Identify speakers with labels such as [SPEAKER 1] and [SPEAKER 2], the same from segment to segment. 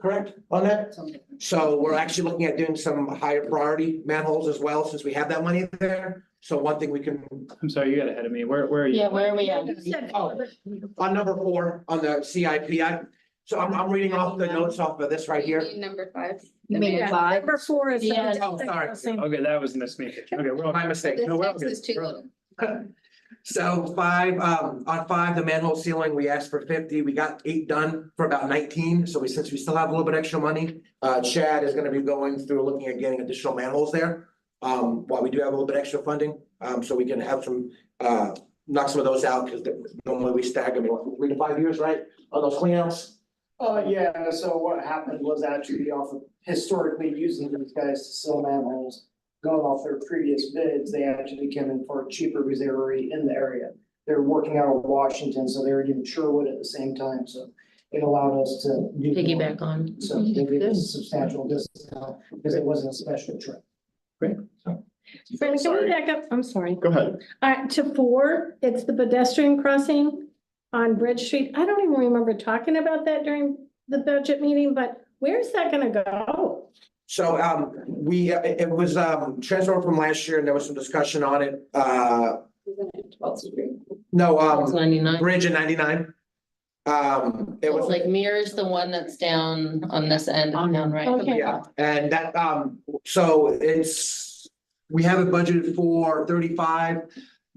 [SPEAKER 1] correct on that?
[SPEAKER 2] Something.
[SPEAKER 1] So we're actually looking at doing some higher priority manholes as well, since we have that money there. So one thing we can,
[SPEAKER 3] I'm sorry, you got ahead of me. Where, where are you?
[SPEAKER 4] Yeah, where are we at?
[SPEAKER 1] oh, on number four, on the CIP, I, so I'm, I'm reading off the notes off of this right here.
[SPEAKER 5] Number five.
[SPEAKER 4] You mean
[SPEAKER 2] Yeah,
[SPEAKER 4] five?
[SPEAKER 2] Number four is.
[SPEAKER 4] Yeah.
[SPEAKER 1] Oh, sorry.
[SPEAKER 3] Okay, that was miss me. Okay, we're all.
[SPEAKER 1] My mistake.
[SPEAKER 5] The
[SPEAKER 3] No, we're all
[SPEAKER 5] text is
[SPEAKER 3] good.
[SPEAKER 5] too
[SPEAKER 3] We're all
[SPEAKER 5] little.
[SPEAKER 1] So five, um, on five, the manhole ceiling, we asked for fifty, we got eight done for about nineteen, so we, since we still have a little bit extra money. Uh, Chad is gonna be going through, looking at getting additional manholes there, um, while we do have a little bit extra funding, um, so we can have some, uh. Knock some of those out, cause normally we stagger them, in, what, three to five years, right, on those cleanouts,
[SPEAKER 6] Uh, yeah, so what happened was actually off of historically using these guys to sell manholes. Going off their previous bids, they actually came in far cheaper because they were already in the area. They're working out of Washington, so they were in Sherwood at the same time, so it allowed us to. do more.
[SPEAKER 4] Piggyback on.
[SPEAKER 6] So they gave us a substantial discount because it wasn't a special trip.
[SPEAKER 2] Brandon, can we
[SPEAKER 3] Sorry.
[SPEAKER 2] back up? I'm sorry.
[SPEAKER 3] Go ahead.
[SPEAKER 2] Uh, to four, it's the pedestrian crossing on Bridge Street. I don't even remember talking about that during the budget meeting, but where's that gonna go?
[SPEAKER 1] So um, we, it it was um transferred from last year and there was some discussion on it, uh,
[SPEAKER 5] Twelve to three.
[SPEAKER 1] no,
[SPEAKER 4] It's
[SPEAKER 1] um,
[SPEAKER 4] ninety-nine.
[SPEAKER 1] bridge in ninety-nine. Um, it
[SPEAKER 4] It's
[SPEAKER 1] was,
[SPEAKER 4] like mirrors the one that's down on this end of town, right?
[SPEAKER 2] Okay.
[SPEAKER 1] yeah, and that um, so it's, we have it budgeted for thirty-five.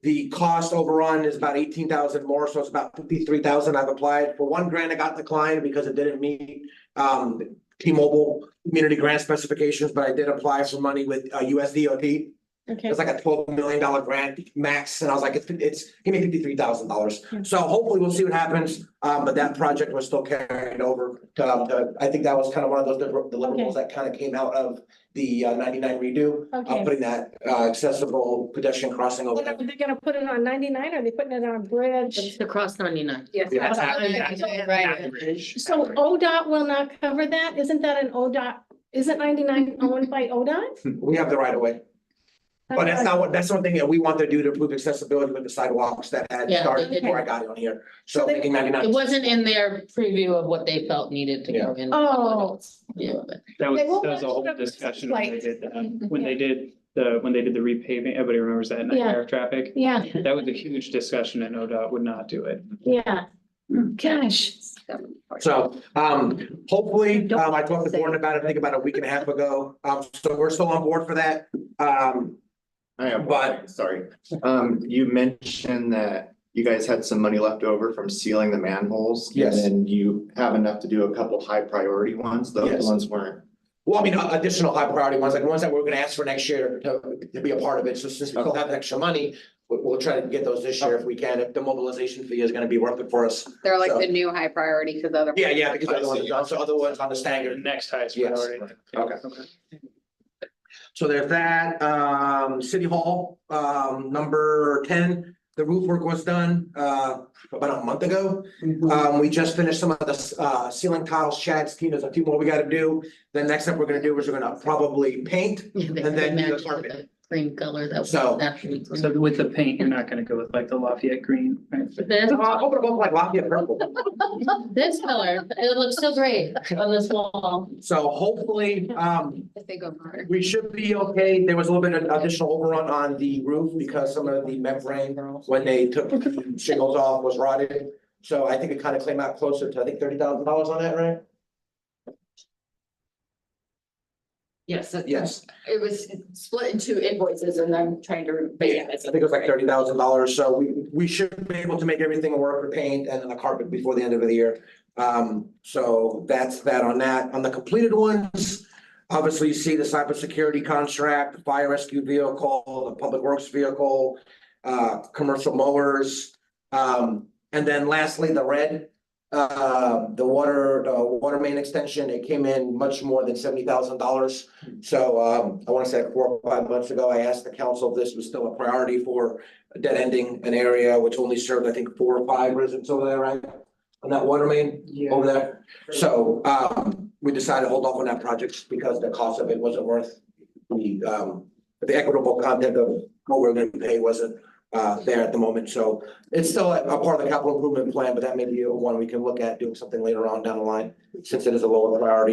[SPEAKER 1] The cost overrun is about eighteen thousand more, so it's about fifty-three thousand. I've applied for one grant. I got declined because it didn't meet um T-Mobile community grant specifications, but I did apply for money with uh USDOT.
[SPEAKER 2] Okay,
[SPEAKER 1] It's like a twelve million dollar grant max, and I was like, it's, it's, give me fifty-three thousand dollars. So hopefully we'll see what happens, um, but that project was still carried over. Um, the- I think that was kind of one of those deliver- deliverables that kind of came out of the uh, ninety-nine redo. Uh,
[SPEAKER 2] okay.
[SPEAKER 1] putting that, uh, accessible pedestrian crossing over.
[SPEAKER 2] Are
[SPEAKER 1] there.
[SPEAKER 2] they gonna put it on ninety-nine? Are they putting it on a bridge?
[SPEAKER 4] It's across ninety-nine.
[SPEAKER 5] Yes.
[SPEAKER 3] Yeah.
[SPEAKER 4] Right.
[SPEAKER 2] So ODOT will not cover that? Isn't that an ODOT? Isn't ninety-nine owned by ODOT?
[SPEAKER 1] We have the right of way, but Oh, that's not what, that's one thing that we want to do to improve accessibility with the sidewalks that had
[SPEAKER 4] Yeah,
[SPEAKER 1] started
[SPEAKER 4] okay.
[SPEAKER 1] before I got on here. So
[SPEAKER 2] So they-
[SPEAKER 1] making ninety-nine.
[SPEAKER 4] It wasn't in their preview of what they felt needed to go in.
[SPEAKER 2] Oh.
[SPEAKER 4] Yeah, but-
[SPEAKER 3] That was,
[SPEAKER 2] They won't
[SPEAKER 3] that was a
[SPEAKER 2] let
[SPEAKER 3] whole
[SPEAKER 2] you-
[SPEAKER 3] discussion when they
[SPEAKER 2] like-
[SPEAKER 3] did that, when they did the, when they did the repaving, everybody remembers that nightmare of traffic.
[SPEAKER 2] Yeah,
[SPEAKER 3] That was a huge discussion and ODOT would not do it.
[SPEAKER 2] yeah. Gosh.
[SPEAKER 1] So, um, hopefully,
[SPEAKER 4] Don't
[SPEAKER 1] um, I talked to Gordon about it, I think about a week and a half ago, um, so we're still on board for that. Um,
[SPEAKER 7] I have,
[SPEAKER 1] But-
[SPEAKER 7] one. sorry. Um, you mentioned that you guys had some money left over from sealing the manholes.
[SPEAKER 1] Yes.
[SPEAKER 7] And then you have enough to do a couple high priority ones. The other
[SPEAKER 1] Yes.
[SPEAKER 7] ones weren't.
[SPEAKER 1] well, I mean, uh, additional high priority ones, like ones that we're gonna ask for next year to, to be a part of it, so since we still have extra money. We'll, we'll try to get those this year if we can, if the mobilization fee is gonna be worth it for us.
[SPEAKER 5] They're like
[SPEAKER 1] So-
[SPEAKER 5] the new high priority because other.
[SPEAKER 1] Yeah, yeah, because other ones, so other ones on the
[SPEAKER 3] Your
[SPEAKER 1] staggered.
[SPEAKER 3] next highest
[SPEAKER 1] Yes.
[SPEAKER 3] priority.
[SPEAKER 1] Okay. So there's that, um, City Hall, um, number ten, the roof work was done, uh, about a month ago. Um, we just finished some of the, uh, ceiling tiles, Chad's team, there's a few more we gotta do. Then next up we're gonna do is we're gonna probably paint.
[SPEAKER 4] yeah, they
[SPEAKER 1] And then
[SPEAKER 4] matched
[SPEAKER 1] the
[SPEAKER 4] with
[SPEAKER 1] carpet.
[SPEAKER 4] the Cream color that was
[SPEAKER 1] So-
[SPEAKER 4] naturally.
[SPEAKER 3] So with the paint, you're not gonna go with like the Lafayette green, right?
[SPEAKER 4] This,
[SPEAKER 1] Uh, open them up like Lafayette purple.
[SPEAKER 4] this color, it looks so great on this wall.
[SPEAKER 1] So hopefully, um,
[SPEAKER 5] If they go higher.
[SPEAKER 1] we should be okay. There was a little bit of additional overrun on the roof because some of the membrane when they took shingles off was rotted. So I think it kind of came out closer to, I think, thirty thousand dollars on that, right?
[SPEAKER 8] Yes, it-
[SPEAKER 1] Yes.
[SPEAKER 8] it was split into invoices and I'm trying to, but yeah,
[SPEAKER 1] I
[SPEAKER 8] it's-
[SPEAKER 1] think it was like thirty thousand dollars, so we, we should be able to make everything work with paint and then the carpet before the end of the year. Um, so that's that on that. On the completed ones, obviously you see the cybersecurity contract, the fire rescue vehicle, the public works vehicle, uh, commercial mowers. Um, and then lastly, the red, uh, the water, the water main extension, it came in much more than seventy thousand dollars. So um, I want to say four or five months ago, I asked the council if this was still a priority for dead ending an area which only served, I think, four or five residents over there, right? On that water main
[SPEAKER 6] Yeah.
[SPEAKER 1] over there. So um, we decided to hold off on that project because the cost of it wasn't worth the um, the equitable content of what we're going to pay wasn't uh, there at the moment. So it's still a a part of the capital improvement plan, but that may be one we can look at doing something later on down the line, since it is a lower priority.